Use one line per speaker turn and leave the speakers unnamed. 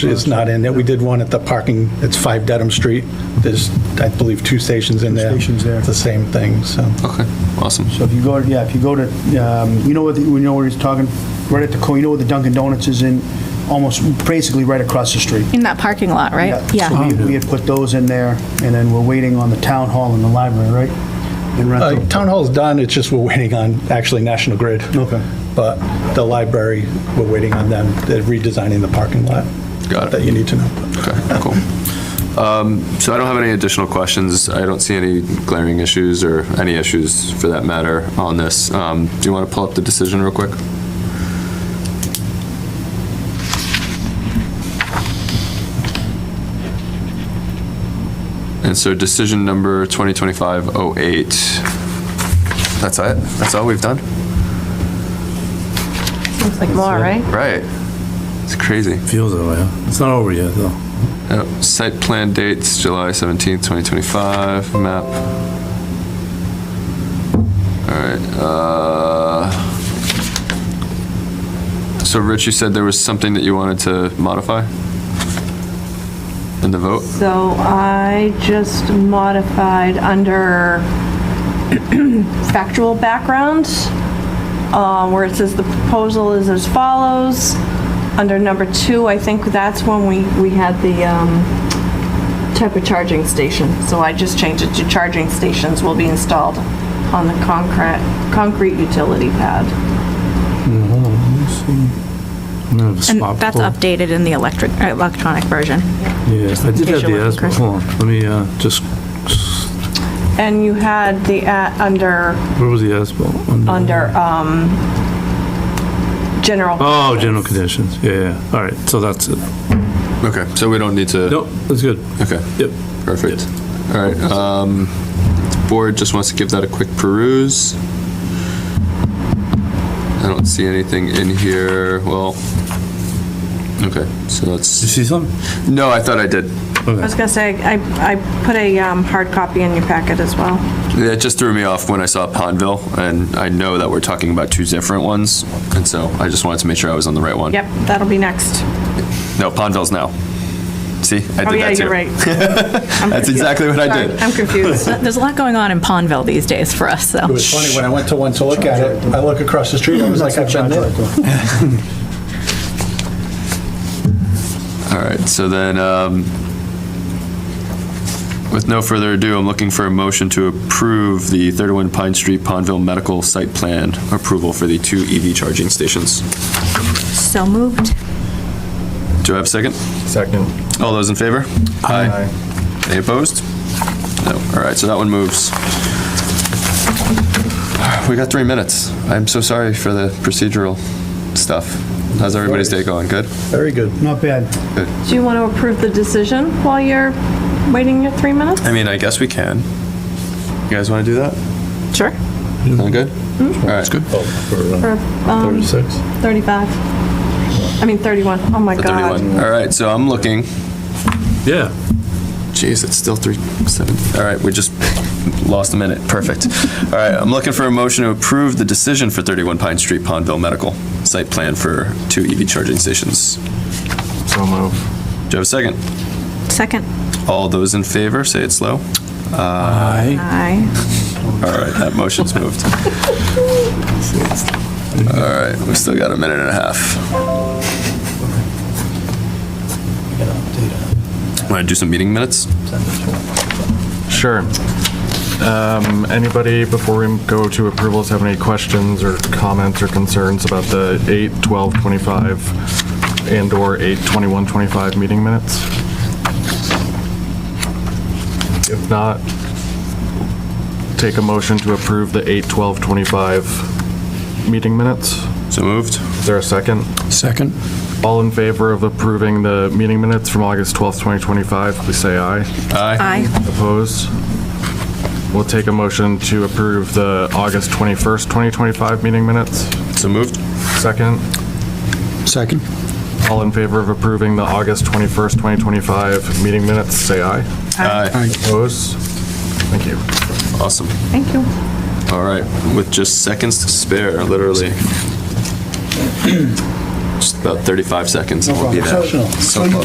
is not in there. We did one at the parking, it's 5 Dedham Street. There's, I believe, two stations in there.
stations there.
It's the same thing, so.
Okay, awesome.
So if you go, to yeah, if you go to, um, you know what, the- you know what he's talking, right at the, co- you know where the Dunkin' Donuts is in, almost basically right across the street.
In that parking lot, right?
So
Uh-huh.
we- we had put those in there, and then we're waiting on the town hall and the library, right? And
Uh,
rental.
Town Hall's done, it's just we're waiting on, actually, National Grid.
Okay.
But the library, we're waiting on them. They're redesigning the parking lot.
Got it.
That you need to know.
Okay, cool. Um, So I don't have any additional questions. I don't see any glaring issues or any issues for that matter on this. Um, Do you want to pull up the decision real quick? And so decision number 2025-08. That's it? That's all we've done?
Seems like more, right?
Right. It's crazy.
Feels that way, huh? It's not over yet, though.
Yep, Site Uh, plan dates, July 17th, 2025, map. All right, uh, so Rich, you said there was something that you wanted to modify in the vote?
So I just modified under factual background, uh, where it says the proposal is as follows. Under number two, I think that's when we, we had the um, type of charging station. So I just changed it to charging stations will be installed on the concrete, concrete utility pad.
I'm gonna have a
And
spot
that's
pull.
updated in the electric, uh, electronic version.
Yeah, I did
case
have
you're
the
looking,
asthma.
Chris.
Hold on, let me, uh, just,
And you had the, at- under,
where was the asthma?
under um, general.
Oh, general conditions, yeah, yeah, all right, so that's it.
Okay, so we don't need to?
Nope, that's good,
Okay,
yep.
perfect. All right, um, board just wants to give that a quick peruse. I don't see anything in here, well, okay, so
Did you
that's,
see something?
no, I thought I did.
I was gonna say, I, I put a um, hard copy in your packet as well.
That just threw me off when I saw Pondville, and I know that we're talking about two different ones, and so I just wanted to make sure I was on the right one.
Yep, that'll be next.
No, Pondville's now. See, I
Oh,
did
yeah,
that
you're
too.
right.
That's exactly what I did.
I'm confused.
There's a lot going on in Pondville these days for us,
It
so.
was funny, when I went to one to look at it, I look across the street, I was like, I've been there.
All right, so then, um, with no further ado, I'm looking for a motion to approve the 31 Pine Street Pondville Medical Site Plan approval for the two EV charging stations.
So moved.
Do I have a second?
Second.
All those in favor? Aye. Any opposed? No. All right, so that one moves. We got three minutes. I'm so sorry for the procedural stuff. How's everybody's day going? Good?
Very good.
Not bad.
Do you want to approve the decision while you're waiting your three minutes?
I mean, I guess we can. You guys want to do that?
Sure.
Sound good? All right. good.
Or, um, 35. I mean, 31. Oh, my God.
31. All right, so I'm looking.
Yeah,
Jeez, it's still three, seven. All right, we just lost a minute. Perfect. All right, I'm looking for a motion to approve the decision for 31 Pine Street Pondville Medical Site Plan for two EV charging stations. Do
So move.
you have a second?
Second.
All those in favor, say it slow.
Aye.
All right, that motion's moved. All right, we've still got a minute and a half. Want to do some meeting minutes?
Sure. Um, Anybody, before we go to approvals, have any questions or comments or concerns about the 8, 12, 25, and/or 8, 21, 25 meeting minutes? If not, take a motion to approve the 8, 12, 25 meeting minutes.
So moved.
Is there a second?
second.
All in favor of approving the meeting minutes from August 12th, 2025, please say aye.
Aye.
Aye.
Opposed? We'll take a motion to approve the August 21st, 2025 meeting minutes.
So moved.
Second,
Second.
all in favor of approving the August 21st, 2025 meeting minutes, say aye.
Aye.
Opposed? Thank you.
Awesome.
Thank you.
All right, with just seconds to spare, literally. Just about 35 seconds and we'll be there.
problem.
So close.